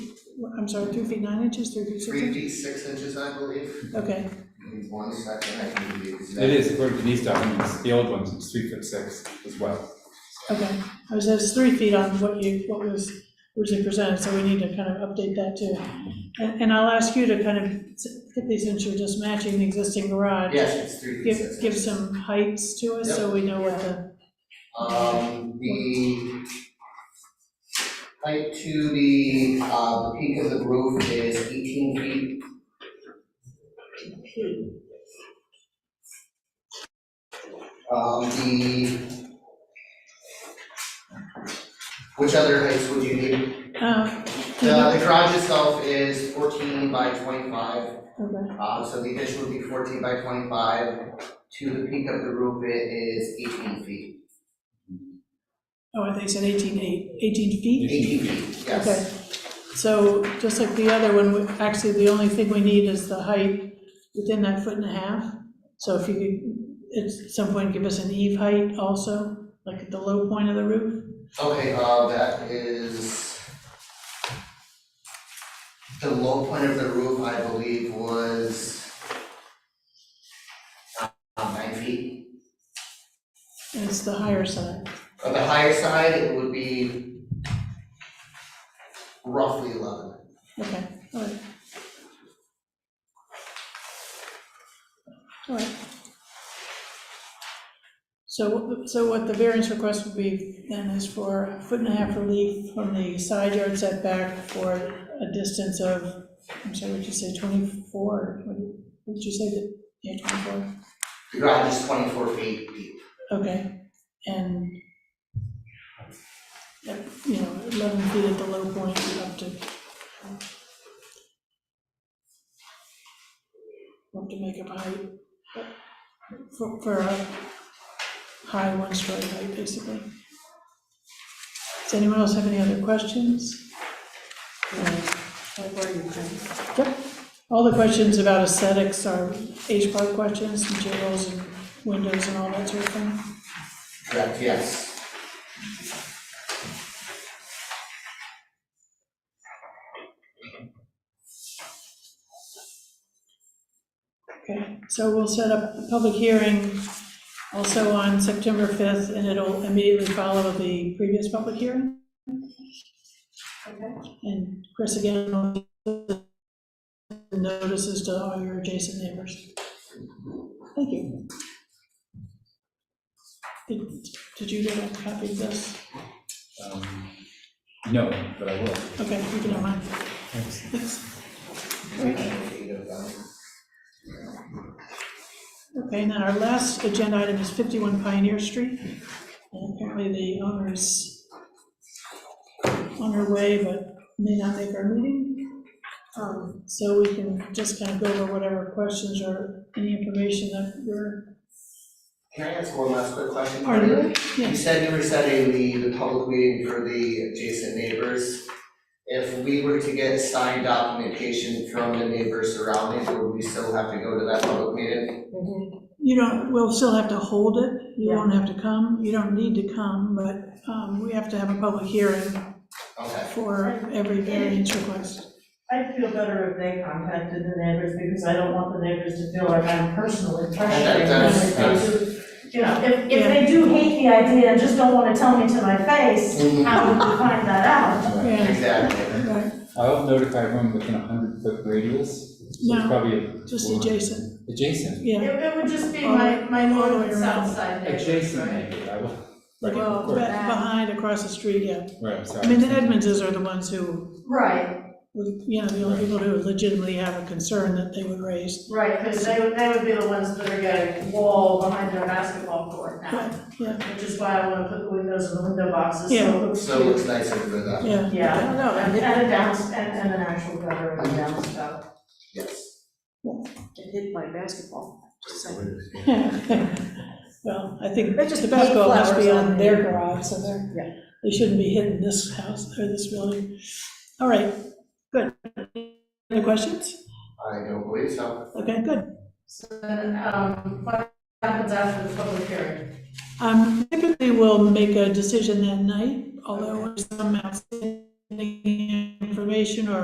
I'm sorry, three feet nine inches, three feet six three inches? feet, six inches, I believe, Okay, in one second, I can give you the exact. It is, according to these documents, the old ones, it's three foot six as well. okay. I was, that's three feet on what you, what was originally presented, so we need to kind of update that too. And, and I'll ask you to kind of, particularly since you're just matching the existing garage. Yes, it's three feet, six Give, inches. give some heights to us so we know what the, Um, the height to the, uh, the peak of the roof is eighteen feet. Um, the which other heights would you need? uh, The, the garage itself is fourteen by twenty-five, okay, uh, so the addition would be fourteen by twenty-five. To the peak of the roof, it is eighteen feet. oh, I think it said eighteen eight, eighteen feet? Eighteen feet, yes. Okay, so just like the other one, we- actually, the only thing we need is the height within that foot and a half. So if you could, at some point, give us an eve height also, like at the low point of the roof. Okay, uh, that is. The low point of the roof, I believe, was. uh, nine feet. And it's the higher side, On the higher side, it would be. Roughly eleven. okay, all right. All right. So, so what the variance request would be then is for a foot and a half relief from the side yard setback for a distance of, I'm sorry, what'd you say, 24? What did what did you say, that- yeah, 24, The garage is twenty-four feet deep. okay, and, yep, you know, 11 feet at the low point up to, up to make up height, but for, for a high one-story height, basically. Does anyone else have any other questions? I've already done. Yep, all the questions about aesthetics are H part questions, materials and windows and all that sort of thing. Correct, yes. Okay, so we'll set up a public hearing also on September 5th, and it'll immediately follow the previous public hearing. Okay. And Chris, again, will send notices to all your adjacent neighbors. Thank you. Did did you get a copy of this? Um, No, but I will. Okay, you can have mine. Thanks. Eight of them. Okay, and then our last agenda item is 51 Pioneer Street. And apparently the owner is on her way, but may not make our meeting. Um, So we can just kind of go over whatever questions or any information that we're, Can I ask one last quick question? Pardon? Maria? You Yes. said you were setting the, the public meeting for the adjacent neighbors. If we were to get signed documentation from the neighbors surrounding, would we still have to go to that public meeting? you don't, we'll still have to hold it. You won't have to come. You don't need to come, but um, we have to have a public hearing Okay, for every variance request. I'd feel better if they contacted the neighbors, because I don't want the neighbors to feel like I'm personally pressuring them. That's- If they do- You know, if, if they do hate the idea and just don't wanna tell me to my face, Mhm. how would you find that out? Yeah, exactly. right. I'll notify everyone within a hundred foot radius. so it's No, Probably Just adjacent, adjacent. yeah. It, it would just be my, my All the way northern around. south side neighbors, Adjacent, right? maybe, I will. Right, of Well, be- course. but- behind, across the street, yeah. Right, I'm sorry. I mean, the Edmondses are the ones who, Right, would- you know, the only people who legitimately have a concern that they would raise. right, because they, would- they would be the ones that are getting wall behind their basketball court now, Yeah, which is why I wanna put the windows in the window boxes, so Yeah. it looks So cute. it's nicer for them, yeah. Yeah. No, And I- and a downs, and, and an actual gutter and a downspout. yes. It hit my basketball. Just like- Well, I think They just the basketball paint must be flowers on on their it. garage, so they're, Yeah. they shouldn't be hitting this house or this building. All right, good. Any questions? I don't believe so. Okay, good. So then, um, what happens after the public hearing? Um, Typically, we'll make a decision that night, although there's some outstanding information or